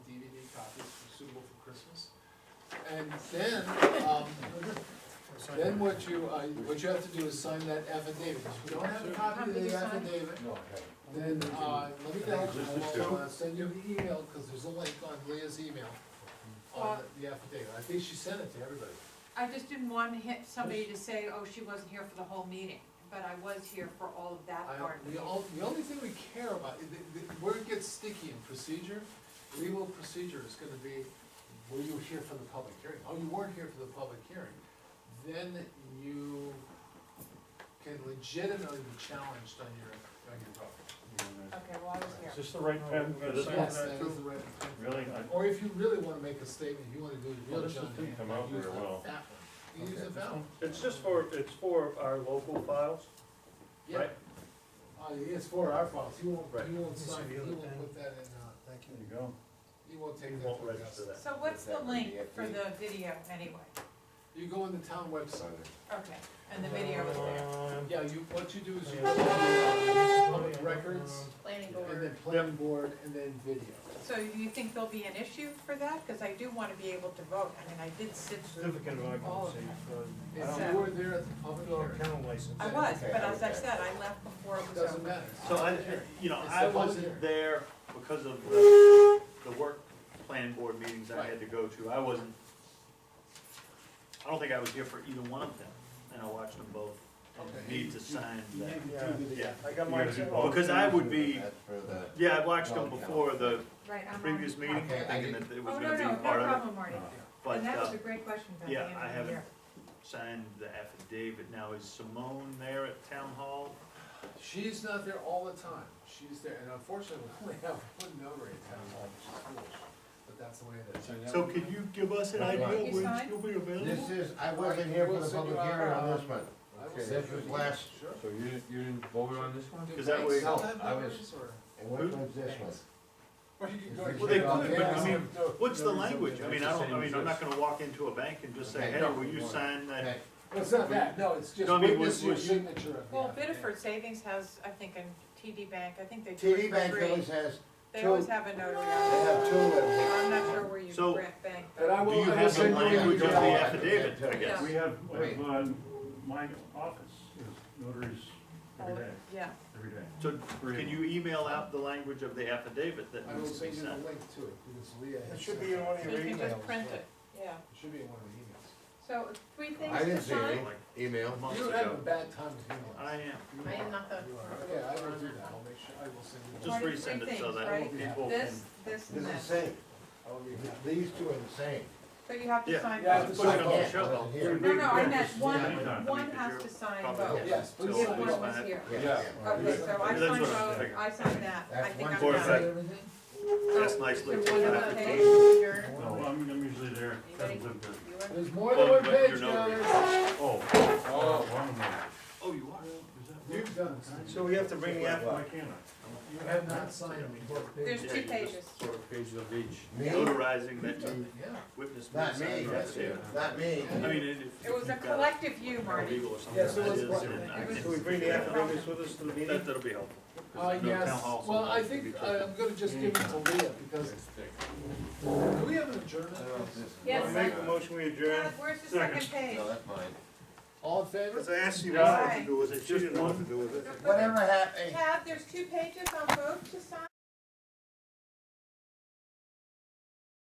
And then, um, then what you, uh, what you have to do is sign that affidavit, if you don't have a copy of the affidavit, No, then, uh, let me know, Just I'll uh, send you the email, cause there's a link on Leah's email on Uh, the affidavit, I think she sent it to everybody. I just didn't want to hit somebody to say, oh, she wasn't here for the whole meeting, but I was here for all of that I, part. of the it. only, the only thing we care about, the, the, where it gets sticky in procedure, legal procedure is gonna be, were you here for the public hearing? Oh, you weren't here for the public hearing, then you can legitimately be challenged on your, on your vote. Okay, well, I was Is here. this the right pen for this Yes, one? that is the right. Really? I- Or if you really wanna make a statement, you wanna do the Well, real this John just Hancock, didn't come out use very the well. fat one, you use the fat one. It's just for, it's for our local files, Yeah. right? Uh, it's for our files, he won't, Right. he won't This is sign, it. he the other won't pen. put that in, uh, Thank There you go. he won't We take that. won't to register Augusta. that. So what's the That would be link it. for the video anyway? You go on the town website. Okay, and the video is there. Um, Yeah, you, what you do is you Yeah. go on public records, Planning and board. then planning board, and then video. So do you think there'll be an issue for that? Because I do want to be able to vote, I mean, I did sit through Certificate of all occupancy, of that. uh, If you were there at the public outdoor hearing, kennel license. Oh. I was, Okay, but as I okay. said, I left before it it was doesn't over. matter. So I, you know, It's the I public wasn't hearing. there because of the, the work plan board meetings I had to go to, I wasn't, I don't think I was here for either one of them, and I watched them both, and Okay. need to sign You that. need to Yeah. do the- Yeah, I got You mine. gotta do too. both. because I would be, That's for the. yeah, I watched them before the Right, I'm on- previous meeting, Okay, I thinking didn't- that it Oh, was no, gonna no, be no part of it, problem, Marty. but, And that was uh, a great question, Beth, yeah, the end I of the haven't- year. signed the affidavit, now is Simone there at town hall? She's not there all the time, she's there, and unfortunately, we only have one number in town hall, which is foolish, but that's the way it is. So can you give us an idea Right. You when signed? she'll be available? This is, I wasn't here for the public hearing on this one. I will Okay, send this you was the- last- Sure. So you didn't, you didn't vote on this one? Do Is that banks way- still No, have I was- numbers, or- And what was this one? Or you could go- Well, Well, they Yeah, could, but I yeah. mean, what's the language? I mean, I It's the don't, I same mean, as I'm not this. gonna walk into a bank and just say, Okay, hey, no, will you we won't. sign that? Okay, Well, It's not that, no, it's just No, I mean, witness was- your was- signature of the Well, affidavit. Biddeford Savings has, I think, in TD Bank, I think they do TV it for Bank free. always has, They two. always have a notary. they have two of them. I'm not sure where you So- grant bank. And I Do will, you I will have the send you the language of the email. affidavit, I guess? Yeah. We have, I Wait. have, uh, my office is notaries every day, Yeah, every day. So Three can of them. you email out the language of the affidavit that I will needs to be send you the sent? link to it, because Leah. had It should sent be in one of so your you can emails. just print it, yeah. It should be in one of the So three things I to didn't see any sign. email. emails. Months You have a ago. bad time with emails. I am, You I am are. not the- You are. Yeah, I will do that, I'll make sure, I will send you. the just Marty, link. three resend it so things, that right? people can. This, this This and is the this. same. I will be happy. These two are the same. So you have to Yeah. sign Yeah, I have both. to Put it sign on the both. shelf. Wasn't here. No, no, I meant Yeah. one, one has to sign both. Probably Yes, till please If sign we both. one was sign it. here. Yeah. Okay, so I That's signed what I was both, thinking. I signed that, I That's think one I'm For a done. second. Everything? That's nicely. There's taken one out. other page, you're, No, I'm, I'm usually there, Anybody? doesn't live there. you were- There's more Oh, than one but you're page, notary. guys. Oh. Oh. wrong one. Oh, you are? You've Is that done right? this. So we have to bring the app, Why can't You have not signed both There's pages. Yeah, two you just- pages. Four pages of each. Me? Notarizing that you Yeah. witnessed. Not me, That's it. not me. I mean, if. if It was a you've got collective you, Marty. Legal or something. Yeah, so that it's is, what- and I can can- we bring the affidavits with us to the meeting? That, that'll be helpful. 'cause Uh, there's no town yes, hall, so well, I it's gonna be think, tricky. I'm gonna just give it to Leah, because, do we have an adjournment? Yes. I Make the motion, we adjourn. Todd, where's the second page? No, that's mine. All in favor? Because I asked you what what to to do with it, you didn't know what to do with it. But- Whatever happened. Tab, there's two pages on both to sign?